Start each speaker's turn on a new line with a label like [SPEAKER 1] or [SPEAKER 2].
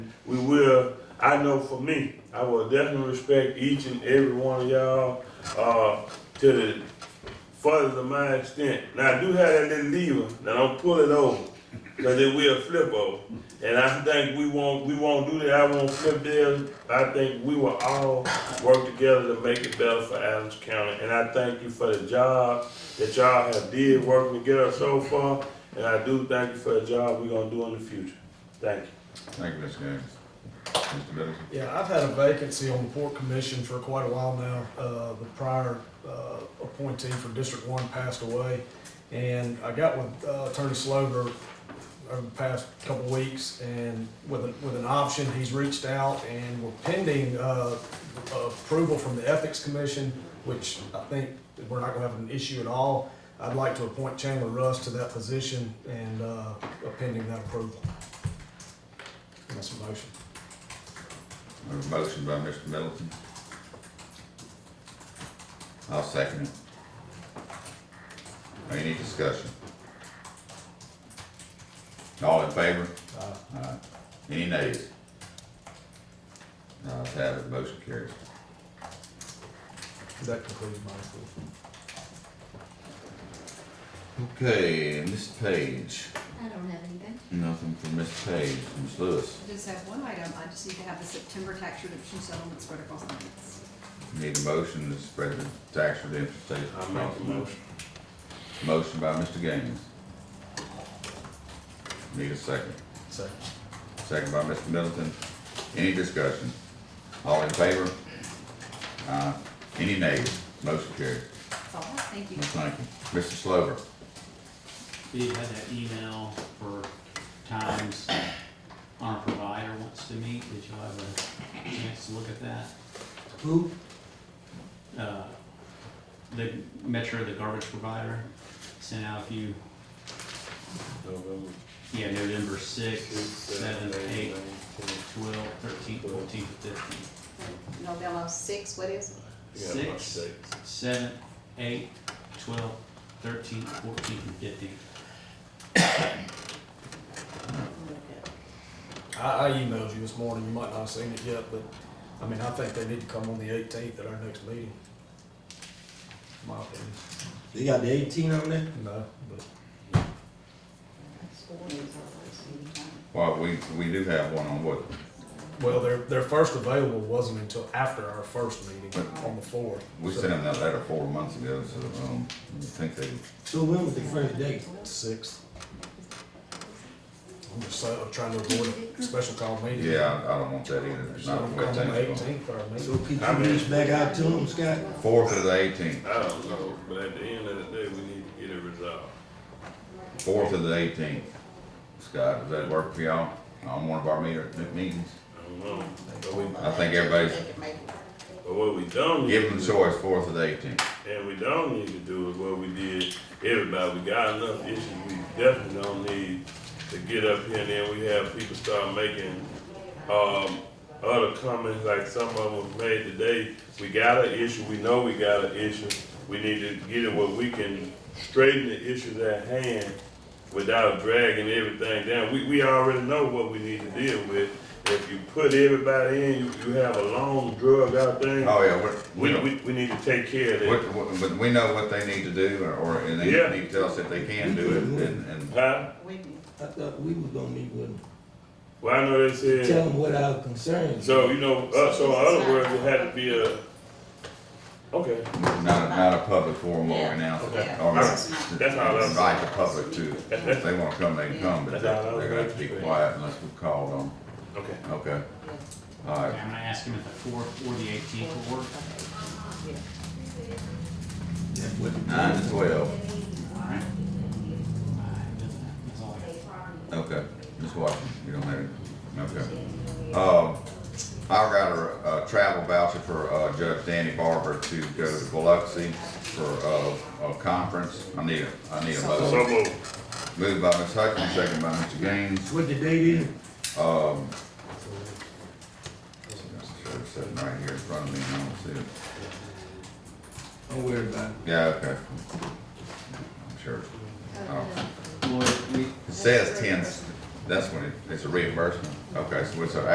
[SPEAKER 1] we will, I know for me, I will definitely respect each and every one of y'all, uh, to the furthest of my extent. Now, I do have that little lever, now don't pull it over, cause it will flip over. And I think we won't, we won't do that, I won't flip theirs, I think we will all work together to make it better for Adams County. And I thank you for the job that y'all have did working together so far, and I do thank you for the job we're gonna do in the future. Thank you.
[SPEAKER 2] Thank you, Mr. Gaines. Mr. Middleton?
[SPEAKER 3] Yeah, I've had a vacancy on the Port Commission for quite a while now. Uh, The prior uh, appointee for District One passed away, and I got with uh, Attorney Slover over the past couple weeks, and with, an- with an option, he's reached out, and we're pending uh, approval from the Ethics Commission, which I think that we're not gonna have an issue at all. I'd like to appoint Chandler Russ to that position, and uh, pending that approval. That's a motion.
[SPEAKER 2] A motion by Mr. Middleton. I'll second it. Any discussion? All in favor?
[SPEAKER 3] Uh,
[SPEAKER 2] Aye. Any nays? Ayes have it, motion carries.
[SPEAKER 3] That concludes my report.
[SPEAKER 2] Okay, Ms. Page,
[SPEAKER 4] I don't have anything.
[SPEAKER 2] nothing from Ms. Page, Ms. Lewis,
[SPEAKER 5] I just have one item, I just need to have the September tax redemption settlement spread across the minutes.
[SPEAKER 2] need a motion to spread the tax redemption statement.
[SPEAKER 1] I make the motion.
[SPEAKER 2] Motion by Mr. Gaines. Need a second.
[SPEAKER 3] Second.
[SPEAKER 2] Second by Mr. Middleton. Any discussion? All in favor? Uh, any nays? Motion carried.
[SPEAKER 5] That's all, thank you.
[SPEAKER 2] Well, Thank you. Mr. Slover,
[SPEAKER 6] We had that email for times our provider wants to meet, did y'all have a chance to look at that?
[SPEAKER 7] Who?
[SPEAKER 6] Uh, The Metro, the garbage provider, sent out a few,
[SPEAKER 1] November
[SPEAKER 6] yeah, November sixth,
[SPEAKER 1] sixth,
[SPEAKER 6] seventh,
[SPEAKER 1] seventh, eighth,
[SPEAKER 6] eighth,
[SPEAKER 1] ninth, tenth.
[SPEAKER 6] twelve, thirteen, fourteen, fifteen,
[SPEAKER 5] November six, what is it?
[SPEAKER 1] Yeah, about
[SPEAKER 6] Six.
[SPEAKER 1] six.
[SPEAKER 6] seven, eight, twelve, thirteen, fourteen, and fifteen.
[SPEAKER 3] I, I emailed you this morning, you might not have seen it yet, but, I mean, I think they need to come on the eighteenth at our next meeting. My opinion,
[SPEAKER 7] They got the eighteen on there?
[SPEAKER 3] no, but,
[SPEAKER 2] well, we, we do have one on what?
[SPEAKER 3] well, their, their first available wasn't until after our first meeting on the fourth.
[SPEAKER 2] We sent them that letter four months ago, so, um, I think they,
[SPEAKER 7] So when was the first date?
[SPEAKER 3] Sixth. I'm just saying, I'm trying to avoid a special call meeting.
[SPEAKER 2] yeah, I I don't want that either.
[SPEAKER 3] So
[SPEAKER 2] Not
[SPEAKER 3] I'm calling
[SPEAKER 2] with
[SPEAKER 3] the
[SPEAKER 2] that.
[SPEAKER 3] eighteenth, our
[SPEAKER 7] So
[SPEAKER 3] meeting.
[SPEAKER 7] could
[SPEAKER 1] I
[SPEAKER 7] you
[SPEAKER 1] mean-
[SPEAKER 7] reach back out to them, Scott?
[SPEAKER 2] Fourth of the eighteenth,
[SPEAKER 1] I don't know, but at the end of the day, we need to get it resolved.
[SPEAKER 2] fourth of the eighteenth. Scott, does that work for y'all on one of our meter, meetings?
[SPEAKER 1] I don't know. But we-
[SPEAKER 2] I think everybody's,
[SPEAKER 1] But what we don't need
[SPEAKER 2] give them
[SPEAKER 1] to
[SPEAKER 2] the
[SPEAKER 1] do,
[SPEAKER 2] choice, fourth of the eighteenth.
[SPEAKER 1] and we don't need to do is what we did, everybody, we got enough issues, we definitely don't need to get up here and then we have people start making, um, other comments, like some of them was made today. We got an issue, we know we got an issue, we need to get it where we can straighten the issues at hand without dragging everything down. We, we already know what we need to deal with. If you put everybody in, you, you have a long drug out thing.
[SPEAKER 2] Oh, yeah, we're.
[SPEAKER 1] We,
[SPEAKER 2] don't-
[SPEAKER 1] we, we need to take care of that.
[SPEAKER 2] What, what, but we know what they need to do, or- or, and they
[SPEAKER 1] Yeah.
[SPEAKER 2] need to tell us if they can do it, and, and,
[SPEAKER 1] Huh?
[SPEAKER 5] We can
[SPEAKER 7] I thought we was gonna meet with them.
[SPEAKER 1] Well, I know they
[SPEAKER 7] Tell
[SPEAKER 1] said,
[SPEAKER 7] them what our concerns.
[SPEAKER 1] so, you know, uh, so in other words, it had to be uh, a, okay,
[SPEAKER 2] not, not a public forum or announce it.
[SPEAKER 5] Yeah.
[SPEAKER 2] Or
[SPEAKER 1] That's how I-
[SPEAKER 2] invite the public to, if they wanna come, they can come, but
[SPEAKER 1] That's how I-
[SPEAKER 2] they're gonna have to be quiet unless we called on,
[SPEAKER 1] okay.
[SPEAKER 2] okay?
[SPEAKER 6] I'm
[SPEAKER 2] Alright,
[SPEAKER 6] gonna ask him if the fourth or the eighteenth will work.
[SPEAKER 2] with nine to twelve,
[SPEAKER 6] Alright. That's all I got.
[SPEAKER 2] okay, Ms. Washington, you don't have it, okay. Um, I got a, a travel voucher for, uh, Judge Danny Barber to go to Biloxi for, uh, a conference, I need a, I need a motion.
[SPEAKER 1] So move.
[SPEAKER 2] Moved by Ms. Hutchins, second by Mr. Gaines.
[SPEAKER 7] What the date is?
[SPEAKER 2] Um, should have sitting right here in front of me, I don't see it.
[SPEAKER 7] Don't worry about it.
[SPEAKER 2] Yeah, okay. I'm sure. Oh,
[SPEAKER 6] Lloyd, we,
[SPEAKER 2] It says ten, that's when it, it's a reimbursement. Okay, so it's an